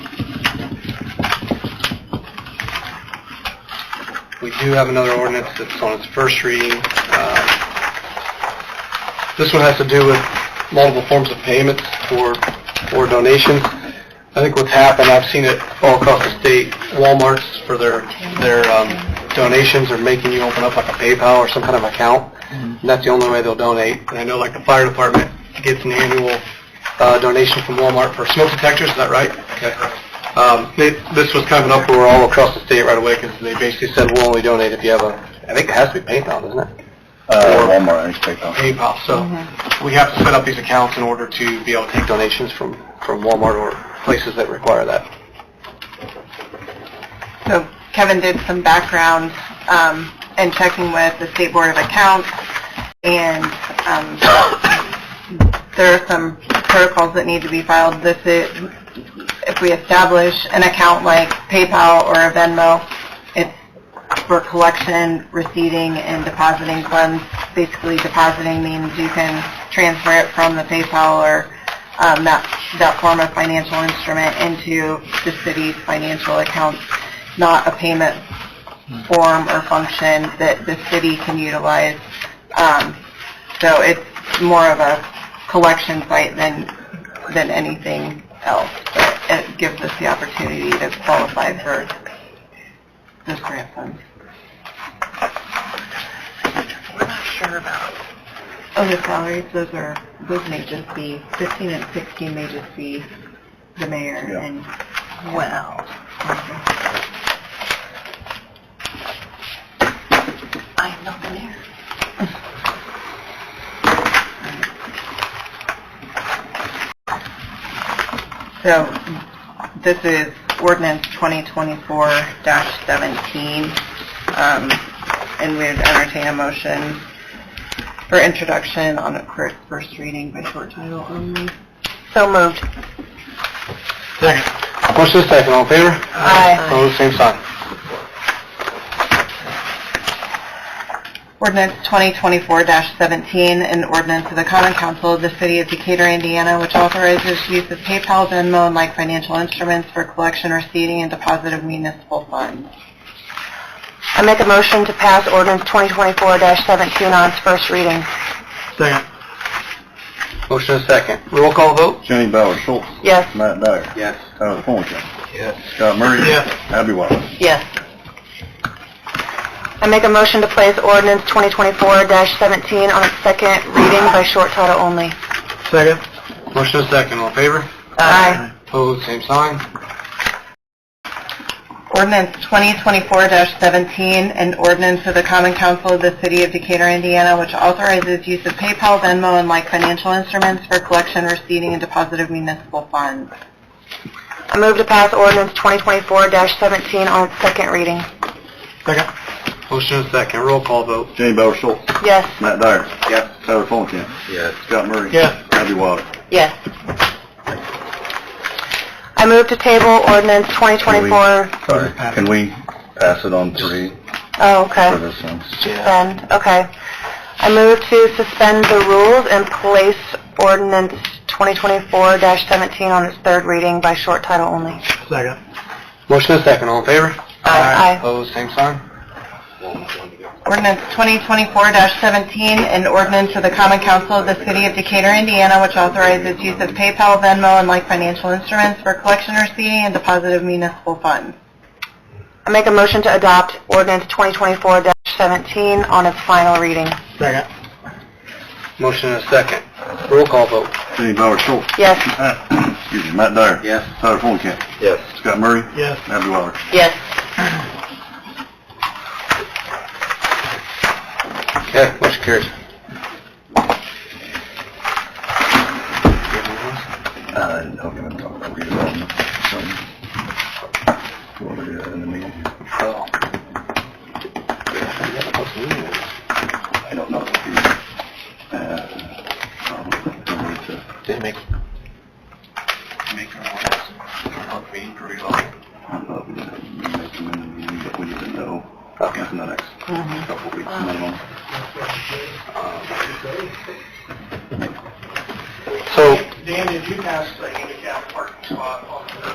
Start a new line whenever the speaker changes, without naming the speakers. We do have another ordinance that's on its first reading. Um, This one has to do with multiple forms of payments for, for donations. I think what's happened, I've seen it all across the state, Walmarts for their, their um, donations are making you open up like a PayPal or some kind of account. And that's the only way they'll donate. And I know like the fire department gets an annual uh, donation from Walmart for smoke detectors, is that right? Okay. Um, they, this was kind of an uproar all across the state right away because they basically said, we'll only donate if you have a, I think it has to be PayPal, doesn't it?
Uh, Walmart, I just take off.
PayPal. So
Mm-hmm.
we have to set up these accounts in order to be able to take donations from, from Walmart or places that require that.
So Kevin did some background um, and checking with the State Board of Accounts, and um, there are some protocols that need to be filed. This is, if we establish an account like PayPal or a Venmo, it's for collection, receiving, and depositing funds. Basically, depositing means you can transfer it from the PayPal or um, that, that form of financial instrument into the city's financial accounts, not a payment form or function that the city can utilize. Um, So it's more of a collection site than, than anything else. But It gives us the opportunity to qualify for those grant funds. We're not sure about. Oh, the salaries, those are, those may just be, 15 and 16 may just be the mayor
Yeah.
and... Mhm. Well. I'm not the mayor. So, this is ordinance 2024-17, um, and we would entertain a motion for introduction on it for its first reading by short title only. So moved.
Second. Motion is second, all in favor?
Aye.
Opposed, same sign.
Ordinance 2024-17, an ordinance of the Common Council of the City of Decatur, Indiana, which authorizes use of PayPal, Venmo, and like financial instruments for collection, receiving, and deposit of municipal funds. I make a motion to pass ordinance 2024-17 on its first reading.
Second. Motion is second. Roll call vote?
Jenny Bauer Schultz.
Yes.
Matt Dyer.
Yes.
Tyler Fullerton.
Yes.
Scott Murray.
Yes.
Abby Wilder.
Yes. I make a motion to place ordinance 2024-17 on its second reading by short title only.
Second. Motion is second, all in favor? Opposed, same sign.
Ordinance 2024-17, an ordinance of the Common Council of the City of Decatur, Indiana, which authorizes use of PayPal, Venmo, and like financial instruments for collection, receiving, and deposit of municipal funds. I move to pass ordinance 2024-17 on its second reading.
Second. Motion is second. Roll call vote?
Jenny Bauer Schultz.
Yes.
Matt Dyer.
Yes.
Tyler Fullerton.
Yes.
Scott Murray.
Yes.
Abby Wilder.
Yes. I move to table ordinance 2024,
Sorry, can we pass it on three
oh, okay.
for this one?
Suspend, okay. I move to suspend the rules and place ordinance 2024-17 on its third reading by short title only.
Second. Motion is second, all in favor?
Aye.
Opposed, same sign.
Ordinance 2024-17, an ordinance of the Common Council of the City of Decatur, Indiana, which authorizes use of PayPal, Venmo, and like financial instruments for collection, receiving, and deposit of municipal funds. I make a motion to adopt ordinance 2024-17 on its final reading.
Second. Motion is second. Roll call vote?
Jenny Bauer Schultz.
Yes.
Matt- Excuse me, Matt Dyer.
Yes.
Tyler Fullerton.
Yes.
Scott Murray.
Yes.
Abby Wilder.
Yes.
Okay, motion carries.
Uh, okay, I'm talking about redevelopment. So, we'll do that in the meeting.
Oh.
I don't know if he, uh, probably needs to
Did it make? Make our
probably make him in the meeting, but we need to know
Okay.
in the next
Mhm.
couple weeks minimum.
So,
Dan, did you pass the